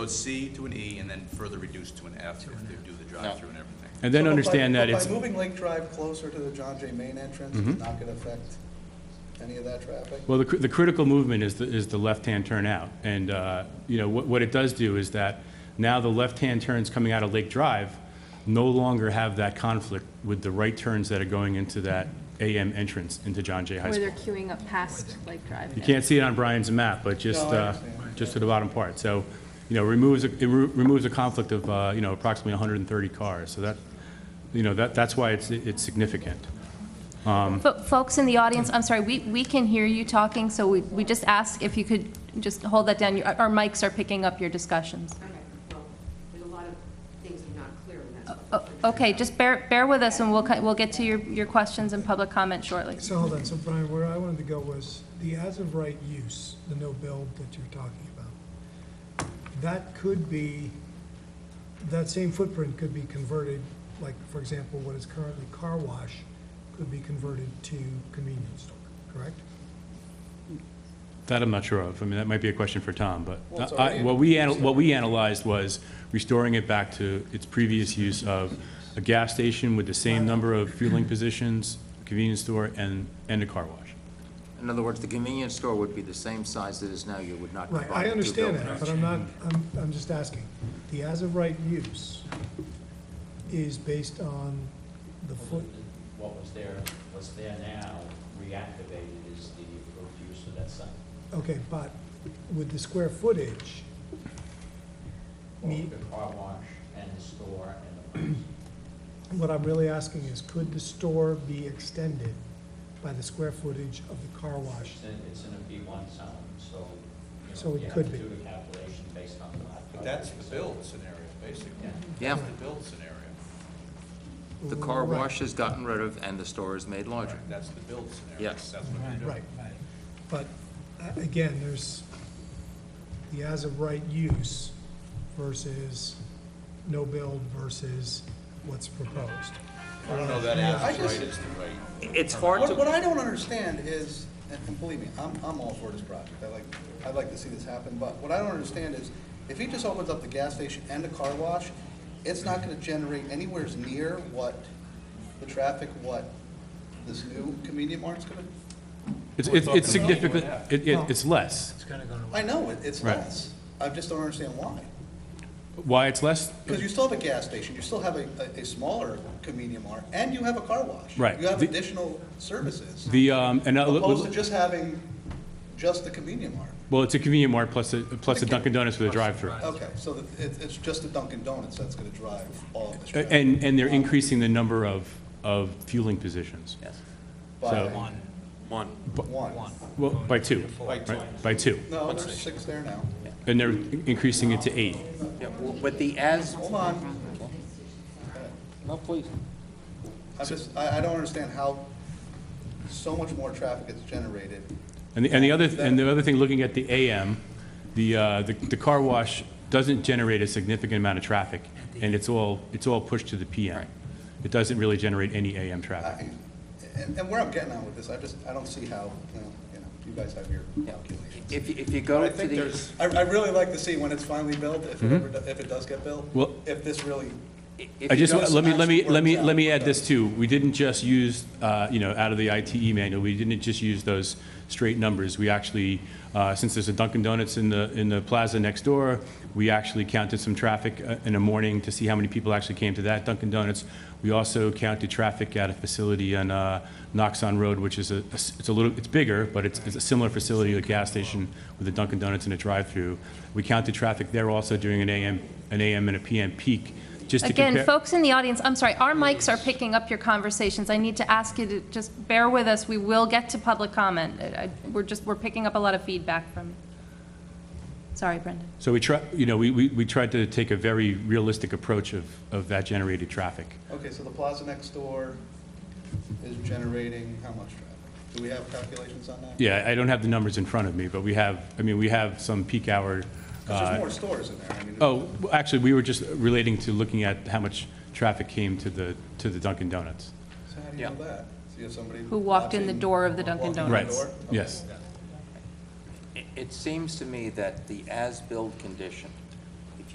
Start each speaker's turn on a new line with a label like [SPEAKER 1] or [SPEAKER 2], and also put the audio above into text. [SPEAKER 1] So it's C to an E and then further reduced to an F if they do the drive-through and everything.
[SPEAKER 2] And then
[SPEAKER 3] So, but by-
[SPEAKER 2] understand that
[SPEAKER 3] but
[SPEAKER 2] it's, Mm-hmm.
[SPEAKER 3] By moving Lake Drive closer to the John Jay Main entrance, it's not going to affect any of that traffic?
[SPEAKER 2] well, the, cr- the critical movement is the, is the left-hand turnout. And, uh, you know, what, what it does do is that now the left-hand turns coming out of Lake Drive no longer have that conflict with the right turns that are going into that AM entrance into John Jay High
[SPEAKER 4] Where they're
[SPEAKER 2] School.
[SPEAKER 4] queuing up past Lake Drive.
[SPEAKER 2] You
[SPEAKER 4] now.
[SPEAKER 2] can't see it on Brian's map, but just,
[SPEAKER 3] No, I
[SPEAKER 2] uh,
[SPEAKER 3] understand.
[SPEAKER 2] just to the bottom part. So, you know, removes, a- it re- removes a conflict of, uh, you know, approximately 130 cars. So that, you know, that, that's why it's, it's significant.
[SPEAKER 4] Fo- Folks in the audience, I'm sorry, we, we can hear you talking, so we, we just ask if you could just hold that down. Your- Our mics are picking up your discussions.
[SPEAKER 5] Okay, well, there's a lot of things that are not clear, and that's what.
[SPEAKER 4] O- Okay, just bear, bear with us, and we'll, cut- we'll get to your, your questions and public comment shortly.
[SPEAKER 6] So hold on, so Brian, where I wanted to go was the as-of-right use, the no-build that you're talking about. That could be, that same footprint could be converted, like, for example, what is currently car wash could be converted to convenience store, correct?
[SPEAKER 2] That I'm not sure of. I mean, that might be a question for Tom, but
[SPEAKER 3] Well, it's
[SPEAKER 2] I-
[SPEAKER 3] already-
[SPEAKER 2] what we, anal- what we analyzed was restoring it back to its previous use of a gas station with the same number of fueling positions, convenience store, and, and a car wash.
[SPEAKER 7] In other words, the convenience store would be the same size that is now, you would not
[SPEAKER 6] Right,
[SPEAKER 7] combine the two
[SPEAKER 6] I understand that,
[SPEAKER 7] buildings.
[SPEAKER 6] but I'm not, I'm, I'm just asking. The as-of-right use is based on the foot,
[SPEAKER 8] What was there, what's there now reactivated is the approved use of that site.
[SPEAKER 6] okay, but with the square footage, Me-
[SPEAKER 8] Both The car wash and the store and the place.
[SPEAKER 6] What I'm really asking is, could the store be extended by the square footage of the car wash?
[SPEAKER 8] It's in, it's in a B one zone, so, you
[SPEAKER 6] So
[SPEAKER 8] know,
[SPEAKER 6] it
[SPEAKER 8] you have
[SPEAKER 6] could
[SPEAKER 8] to
[SPEAKER 6] be.
[SPEAKER 8] do the calculation based on the lot.
[SPEAKER 1] But that's the build scenario, basically.
[SPEAKER 8] Yeah.
[SPEAKER 7] Yeah,
[SPEAKER 1] That's the build scenario.
[SPEAKER 7] the car
[SPEAKER 6] Right,
[SPEAKER 7] wash is gotten rid of and the store is made larger.
[SPEAKER 1] That's the build scenario.
[SPEAKER 7] Yes.
[SPEAKER 1] That's what you're
[SPEAKER 6] Right,
[SPEAKER 1] doing.
[SPEAKER 6] but uh, again, there's the as-of-right use versus no build versus what's proposed.
[SPEAKER 1] I don't know that as
[SPEAKER 3] I
[SPEAKER 1] right
[SPEAKER 3] just-
[SPEAKER 1] is the right.
[SPEAKER 7] It's hard
[SPEAKER 3] What, what
[SPEAKER 7] to,
[SPEAKER 3] I don't understand is, and and believe me, I'm, I'm all for this project, I like, I'd like to see this happen, but what I don't understand is, if he just opens up the gas station and the car wash, it's not gonna generate anywhere near what the traffic, what this new convenience mart's gonna,
[SPEAKER 2] It's,
[SPEAKER 1] We're
[SPEAKER 2] it's
[SPEAKER 1] talking
[SPEAKER 2] it's
[SPEAKER 1] about
[SPEAKER 2] significant,
[SPEAKER 1] going up.
[SPEAKER 2] it, it- it's less.
[SPEAKER 3] I know, it- it's
[SPEAKER 2] Right.
[SPEAKER 3] less. I just don't understand why.
[SPEAKER 2] Why it's less?
[SPEAKER 3] Because you still have a gas station, you still have a, a- a smaller convenience mart, and you have a car wash.
[SPEAKER 2] Right.
[SPEAKER 3] You have
[SPEAKER 2] The-
[SPEAKER 3] additional services,
[SPEAKER 2] The, um, and,
[SPEAKER 3] opposed to
[SPEAKER 2] uh,
[SPEAKER 3] just having just the convenience mart.
[SPEAKER 2] well, it's a convenient mart plus a, plus a Dunkin' Donuts with a drive-through.
[SPEAKER 3] Okay, so that- it, it's just the Dunkin' Donuts that's gonna drive all of this traffic.
[SPEAKER 2] And, and they're increasing the number of, of fueling positions.
[SPEAKER 3] By
[SPEAKER 2] so-
[SPEAKER 3] one. One.
[SPEAKER 2] Well, by two. By two. By two.
[SPEAKER 3] No, there's six there now.
[SPEAKER 2] And they're increasing it to eight.
[SPEAKER 7] Yeah, w- with the as,
[SPEAKER 3] Hold on,
[SPEAKER 7] no, please.
[SPEAKER 3] I just, I, I don't understand how so much more traffic gets generated.
[SPEAKER 2] And the, and the other,
[SPEAKER 3] That-
[SPEAKER 2] and the other thing, looking at the AM, the, uh, the, the car wash doesn't generate a significant amount of traffic, and it's all, it's all pushed to the PM. It doesn't really generate any AM traffic.
[SPEAKER 3] I- And, and where I'm getting at with this, I just, I don't see how, you know, you know, you guys have your
[SPEAKER 7] Yeah.
[SPEAKER 3] calculations.
[SPEAKER 7] If, you- if you go
[SPEAKER 3] I
[SPEAKER 7] to
[SPEAKER 3] think
[SPEAKER 7] the,
[SPEAKER 3] there's, I, I really like to see when it's finally built, if it ever, do- if it does get built.
[SPEAKER 2] Mm-hmm. Well-
[SPEAKER 3] If this really,
[SPEAKER 7] if
[SPEAKER 2] I
[SPEAKER 7] you
[SPEAKER 2] just,
[SPEAKER 7] go,
[SPEAKER 3] don't
[SPEAKER 2] let me, let me,
[SPEAKER 3] actually
[SPEAKER 2] let me,
[SPEAKER 3] work
[SPEAKER 2] let me
[SPEAKER 3] out
[SPEAKER 2] add this too. We didn't just use, uh, you know, out of the ITE manual, we didn't just use those straight numbers. We actually, uh, since there's a Dunkin' Donuts in the, in the plaza next door, we actually counted some traffic uh, in the morning to see how many people actually came to that Dunkin' Donuts. We also counted traffic at a facility on uh, Knoxon Road, which is a, a s- it's a little, it's bigger, but it's, it's a similar facility, a gas station with a Dunkin' Donuts and a drive-through. We counted traffic there also during an AM, an AM and a PM peak, just to compare.
[SPEAKER 4] Again, folks in the audience, I'm sorry, our mics are picking up your conversations. I need to ask you to just bear with us. We will get to public comment. I- I- We're just, we're picking up a lot of feedback from, sorry, Brendan.
[SPEAKER 2] So we try, you know, we, we we tried to take a very realistic approach of, of that generated traffic.
[SPEAKER 3] okay, so the plaza next door is generating how much traffic? Do we have calculations on that?
[SPEAKER 2] Yeah, I don't have the numbers in front of me, but we have, I mean, we have some peak hour.
[SPEAKER 3] Because
[SPEAKER 2] uh,
[SPEAKER 3] there's more stores in there, I mean.
[SPEAKER 2] Oh, well, actually, we were just relating to looking at how much traffic came to the, to the Dunkin' Donuts.
[SPEAKER 3] So how do you
[SPEAKER 7] Yeah.
[SPEAKER 3] know that? So you have somebody.
[SPEAKER 4] Who walked in the
[SPEAKER 3] watching-
[SPEAKER 4] door of the Dunkin'
[SPEAKER 3] walking in the
[SPEAKER 2] Right,
[SPEAKER 4] Donuts.
[SPEAKER 3] door?
[SPEAKER 2] yes.
[SPEAKER 7] it- it seems to me that the as-built condition